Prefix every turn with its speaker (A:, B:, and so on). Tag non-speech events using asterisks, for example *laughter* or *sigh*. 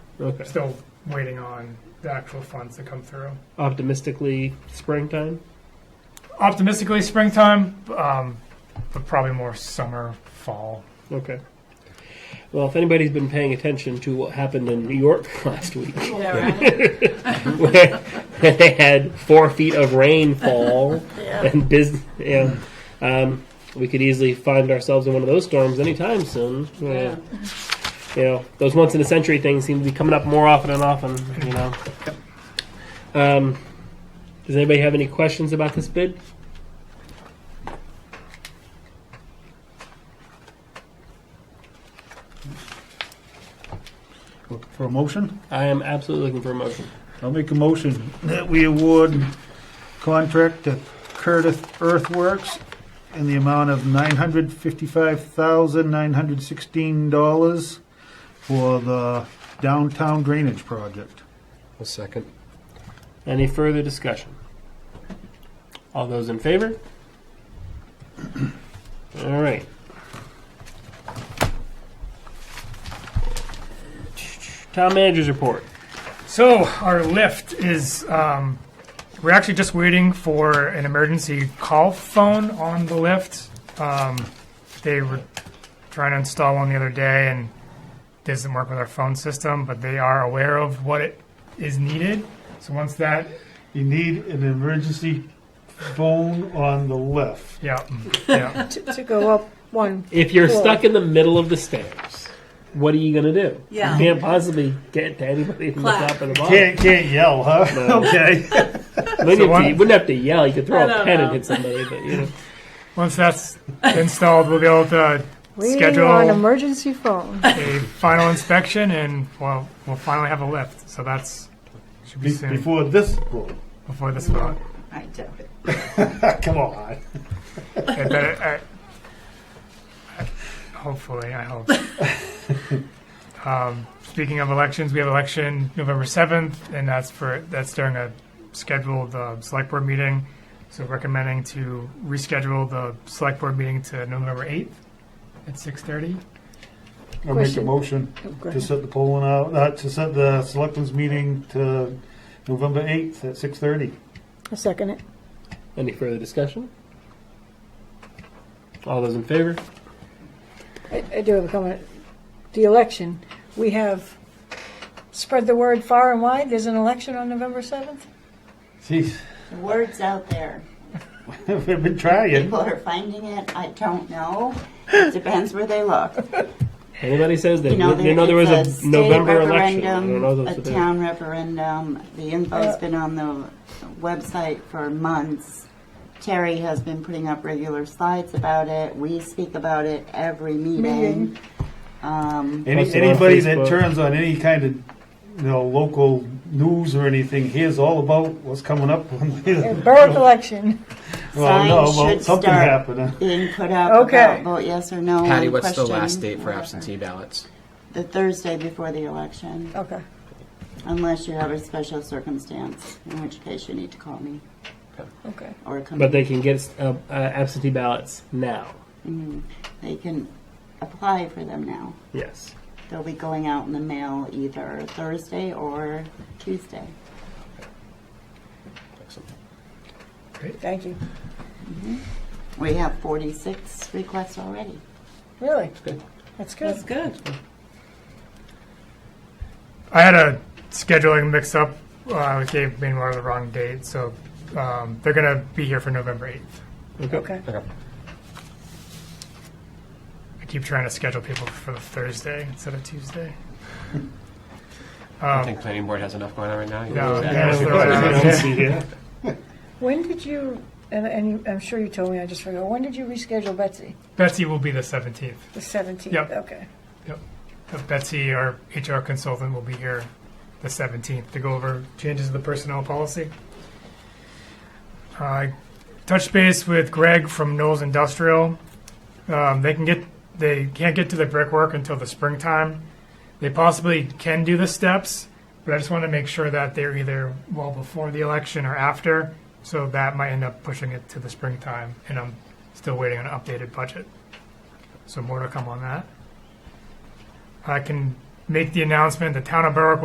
A: Okay.
B: Still waiting on the actual funds to come through.
A: Optimistically, springtime.
B: Optimistically, springtime, um, but probably more summer, fall.
A: Okay. Well, if anybody's been paying attention to what happened in New York *laughs* last week,
C: Yeah,
A: *laughs*
C: right.
A: where they had four feet of rainfall
C: Yeah.
A: and business, yeah, um, we could easily find ourselves in one of those storms anytime soon. Uh,
C: Yeah.
A: you know, those once in a century things seem to be coming up more often and often. You know. Um, does anybody have any questions about this bid?
D: Look For a motion?
A: I am absolutely looking for a motion.
D: I'll make a motion that we award contract to Curtis Earthworks in the amount of nine hundred fifty-five thousand nine hundred sixteen dollars for the downtown drainage project.
E: A second.
A: Any further discussion? All those in favor? All right. Town managers report.
B: So our lift is um, we're actually just waiting for an emergency call phone on the lift. Um, they were trying to install one the other day and doesn't work with our phone system, but they are aware of what it is needed. So once that,
D: You need an emergency phone on the left.
B: yeah, mm, yeah,
F: *laughs* to, to go up one.
A: If you're
F: Cool.
A: stuck in the middle of the stairs, what are you gonna do?
C: Yeah.
A: You can't possibly get to anybody from the
C: Clap.
A: top or the bottom.
D: Can't, can't yell, huh? Okay.
A: Wouldn't
B: So
A: have to-
B: one-
A: You wouldn't have to yell. You could throw
C: I
A: a
C: don't
A: pen and
C: know.
A: hit somebody, but you know.
B: once that's installed, we'll be able to
F: We
B: Schedule. Uh,
F: are an emergency phone.
B: a final inspection and well, we'll finally have a lift. So that's should be
D: Be-
B: soon before,
D: Before this, vote.
B: this one.
C: I doubt it.
D: come on.
B: I bet it, I, I- hopefully, I hope. um, speaking of elections, we have election November seventh, and that's for that's during a scheduled uh, select board meeting. So recommending to reschedule the select board meeting to November eighth at six thirty.
D: I'll make a
F: Question.
D: motion
F: Great.
D: to set the polling out, uh, to set the selectmen's meeting to November eighth at six thirty.
F: I second it.
A: Any further discussion? All those in favor?
F: I, I do have a comment. The election, we have spread the word far and wide. There's an election on November 7th.
D: Jeez,
C: The word's out there.
D: *laughs* we've been trying.
C: People are finding it. I don't know. It depends where
A: *laughs*
C: they look.
A: Anybody says that
C: You know, there,
A: you know there was a,
C: it's a,
A: November
C: state
A: election. I don't
C: referendum,
A: know those
C: a
A: are the-
C: town referendum. The
F: Uh,
C: info's been on the website for months. Terry has been putting up regular slides about it. We speak about it every meeting.
F: Meeting.
C: Um,
D: Any,
A: Posted on
D: anybody
A: Facebook.
D: that turns on any kind of, you know, local news or anything hears all about what's coming up. *laughs*
F: A borough *laughs* election.
A: Oh,
D: Well, no,
C: Signs
D: well,
C: should
D: something
C: start.
D: happening.
C: being put up
F: Okay.
C: about vote yes or no.
E: Patty,
C: on
E: what's the
C: question,
E: last date for
C: whatever.
E: absentee ballots?
C: The Thursday before the election,
F: Okay.
C: unless you have a special circumstance, in which case you need to call me
F: Okay.
C: or come.
A: But they can get uh, uh, absentee ballots now.
C: Mhm. They can apply for them now.
A: Yes.
C: They'll be going out in the mail either Thursday or Tuesday.
F: Thank you.
C: We have 46 requests already.
F: Really? That's good. That's good.
C: good.
B: I had a scheduling mix up. Uh, I gave Mainwater the wrong date, so um, they're going to be here for November 8th.
F: Okay.
B: I keep trying to schedule people for the Thursday instead of Tuesday. Um,
E: I think planning board has enough going on right now. You
B: No,
E: know,
B: yeah,
D: *laughs*
E: that's-
B: it's the right one.
F: When did you, and, and you, I'm sure you told me, I just forgot, when did you reschedule Betsy?
B: Betsy will be the 17th.
F: The 17th?
B: Yep.
F: Okay.
B: Uh, Betsy, our HR consultant, will be here the 17th to go over changes to the personnel policy. I touched base with Greg from Knowles Industrial. Um, they can get they can't get to the brickwork until the springtime. They possibly can do the steps, but I just want to make sure that they're either well before the election or after. So that might end up pushing it to the springtime, and I'm still waiting on an updated budget. So more to come on that. I can make the announcement, the town of Berwick